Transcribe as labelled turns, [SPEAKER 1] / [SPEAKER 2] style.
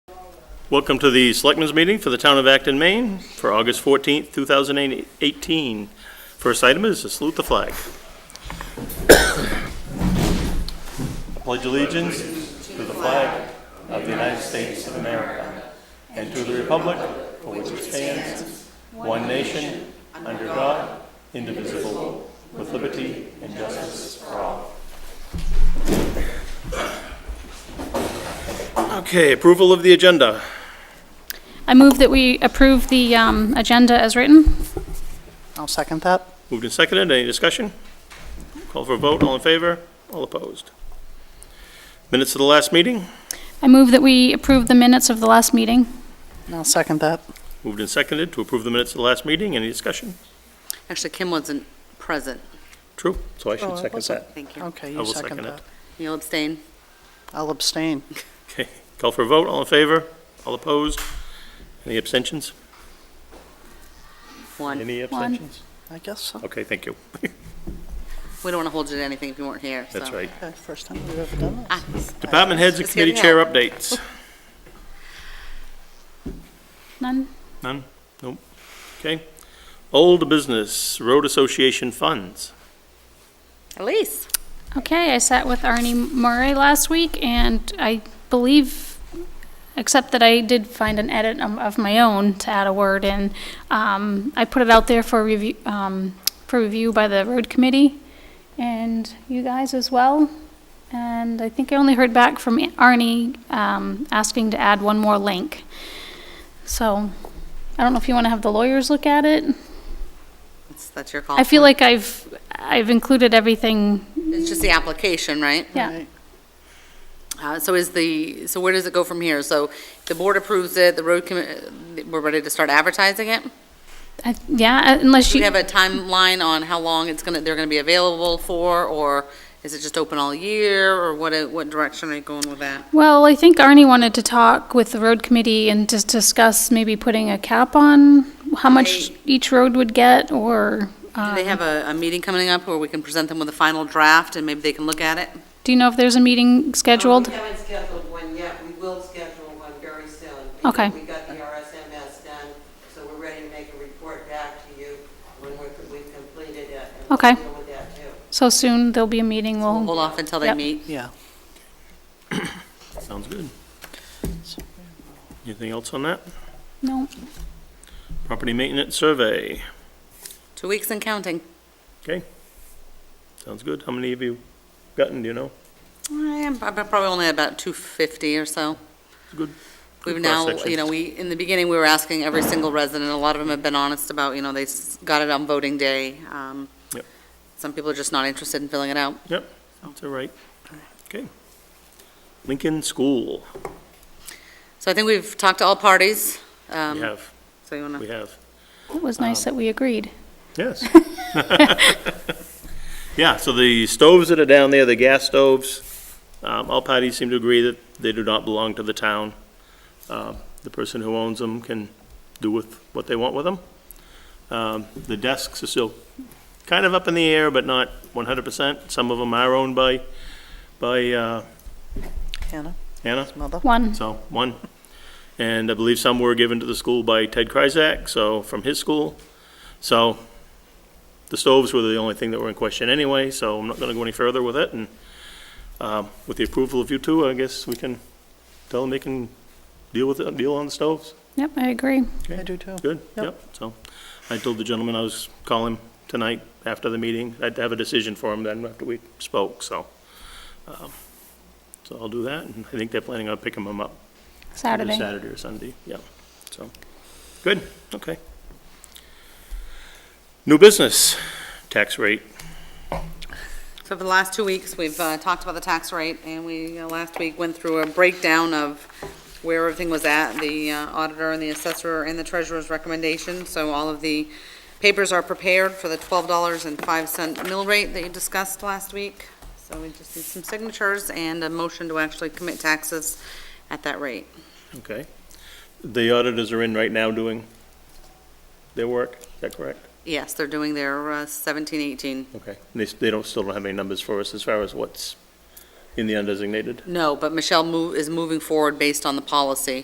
[SPEAKER 1] Welcome to the Selectmen's Meeting for the Town of Acton, Maine, for August 14th, 2018. First item is to salute the flag. Pledge allegiance to the flag of the United States of America and to the republic for which it stands, one nation, under God, indivisible, with liberty and justice for all. Okay, approval of the agenda.
[SPEAKER 2] I move that we approve the um, agenda as written.
[SPEAKER 3] I'll second that.
[SPEAKER 1] Moved and seconded, any discussion? Call for a vote, all in favor, all opposed. Minutes of the last meeting,
[SPEAKER 2] I move that we approve the minutes of the last meeting.
[SPEAKER 3] I'll second that.
[SPEAKER 1] moved and seconded to approve the minutes of the last meeting, any discussion?
[SPEAKER 4] Actually, Kim wasn't present.
[SPEAKER 1] True, so I
[SPEAKER 3] Oh,
[SPEAKER 1] should
[SPEAKER 3] I
[SPEAKER 1] second
[SPEAKER 3] wasn't.
[SPEAKER 1] that.
[SPEAKER 4] Thank you.
[SPEAKER 3] Okay,
[SPEAKER 1] I will
[SPEAKER 3] you second
[SPEAKER 1] second it.
[SPEAKER 3] that.
[SPEAKER 4] You'll abstain?
[SPEAKER 3] I'll abstain.
[SPEAKER 1] Okay, call for a vote, all in favor, all opposed, any abstentions?
[SPEAKER 4] One.
[SPEAKER 1] Any abstentions?
[SPEAKER 3] I guess so.
[SPEAKER 1] Okay, thank you,
[SPEAKER 4] We don't want to hold you to anything if you weren't here, so.
[SPEAKER 1] that's right.
[SPEAKER 3] Okay, first time we've ever done this.
[SPEAKER 4] Ah,
[SPEAKER 1] Department heads and
[SPEAKER 4] Just getting
[SPEAKER 1] committee chair
[SPEAKER 4] out.
[SPEAKER 1] updates.
[SPEAKER 2] None?
[SPEAKER 1] None? Nope. Okay. Old business, road association funds.
[SPEAKER 4] Elise?
[SPEAKER 2] Okay, I sat with Arnie Murray last week, and I believe, except that I did find an edit um, of my own to add a word in. Um, I put it out there for review, um, for review by the road committee and you guys as well. And I think I only heard back from Arnie, um, asking to add one more link. So, I don't know if you want to have the lawyers look at it.
[SPEAKER 4] That's- That's your call.
[SPEAKER 2] I feel like I've, I've included everything,
[SPEAKER 4] It's just the application, right?
[SPEAKER 2] yeah.
[SPEAKER 3] Right.
[SPEAKER 4] Uh, So is the, so where does it go from here? So the board approves it, the road commi, we're ready to start advertising it?
[SPEAKER 2] I- Yeah, unless
[SPEAKER 4] Do we
[SPEAKER 2] you,
[SPEAKER 4] have a timeline on how long it's going to, they're going to be available for? Or is it just open all year? Or what, uh, what direction are you going with that?
[SPEAKER 2] well, I think Arnie wanted to talk with the road committee and just discuss maybe putting a cap on how much
[SPEAKER 4] They-
[SPEAKER 2] each road would get, or, uh,
[SPEAKER 4] Do they have a, a meeting coming up where we can present them with a final draft and maybe they can look at it?
[SPEAKER 2] do you know if there's a meeting scheduled?
[SPEAKER 5] We haven't scheduled one yet, we will schedule one very soon.
[SPEAKER 2] Okay.
[SPEAKER 5] We got the RSMS done, so we're ready to make a report back to you when we're- we've completed it. and we'll
[SPEAKER 2] Okay.
[SPEAKER 5] deal with that too.
[SPEAKER 2] So soon, there'll be a meeting,
[SPEAKER 4] We'll
[SPEAKER 2] we'll,
[SPEAKER 4] hold off until they
[SPEAKER 2] Oh. Yep.
[SPEAKER 4] meet.
[SPEAKER 3] Yeah.
[SPEAKER 1] Sounds good. Anything else on that?
[SPEAKER 2] no,
[SPEAKER 1] Property maintenance survey.
[SPEAKER 4] Two weeks and counting.
[SPEAKER 1] Sounds good. How many have you gotten, do you know?
[SPEAKER 4] Eh, I am prob- probably only about 250 or so.
[SPEAKER 1] Good-
[SPEAKER 4] We've
[SPEAKER 1] good
[SPEAKER 4] now,
[SPEAKER 1] cross-section.
[SPEAKER 4] you know, we, in the beginning, we were asking every single resident, a lot of them have been honest about, you know, they s- got it on voting day. Um,
[SPEAKER 1] Yep.
[SPEAKER 4] Some people are just not interested in filling it out.
[SPEAKER 1] That's all right. Okay. Lincoln School.
[SPEAKER 4] So I think we've talked to all parties. um,
[SPEAKER 1] We have,
[SPEAKER 4] So you want
[SPEAKER 1] we
[SPEAKER 4] to,
[SPEAKER 1] have.
[SPEAKER 2] it was nice that we agreed.
[SPEAKER 1] Yes. Yeah, so the stoves that are down there, the gas stoves, um, all parties seem to agree that they do not belong to the town. Uh, The person who owns them can do with what they want with them. Um, The desks are still kind of up in the air, but not 100%. Some of them are owned by, by uh,
[SPEAKER 3] Hannah,
[SPEAKER 1] Hannah,
[SPEAKER 3] mother.
[SPEAKER 2] One,
[SPEAKER 1] so one. And I believe some were given to the school by Ted Kryzak, so, from his school. So the stoves were the only thing that were in question anyway, so I'm not going to go any further with it. And um, with the approval of you two, I guess we can tell them they can deal with it, deal on the stoves.
[SPEAKER 2] yep, I agree.
[SPEAKER 3] I do too.
[SPEAKER 1] Good,
[SPEAKER 3] Yep.
[SPEAKER 1] yep. So I told the gentleman I was calling tonight after the meeting. I'd have a decision for him then after we spoke, so. um, So I'll do that, and I think they're planning on picking them up either
[SPEAKER 2] Saturday.
[SPEAKER 1] Saturday or Sunday, yeah, so, good, okay. New business, tax rate,
[SPEAKER 4] so for the last two weeks, we've uh, talked about the tax rate, and we, uh, last week, went through a breakdown of where everything was at, the uh, auditor and the assessor and the treasurer's recommendation. So all of the papers are prepared for the $12.05 mill rate that you discussed last week. So we just need some signatures and a motion to actually commit taxes at that rate.
[SPEAKER 1] okay. The auditors are in right now doing their work, is that correct?
[SPEAKER 4] Yes, they're doing their uh, 17, 18.
[SPEAKER 1] Okay, And they, s- they don't, still don't have any numbers for us as far as what's in the undesignated?
[SPEAKER 4] No, but Michelle move- is moving forward based on the policy.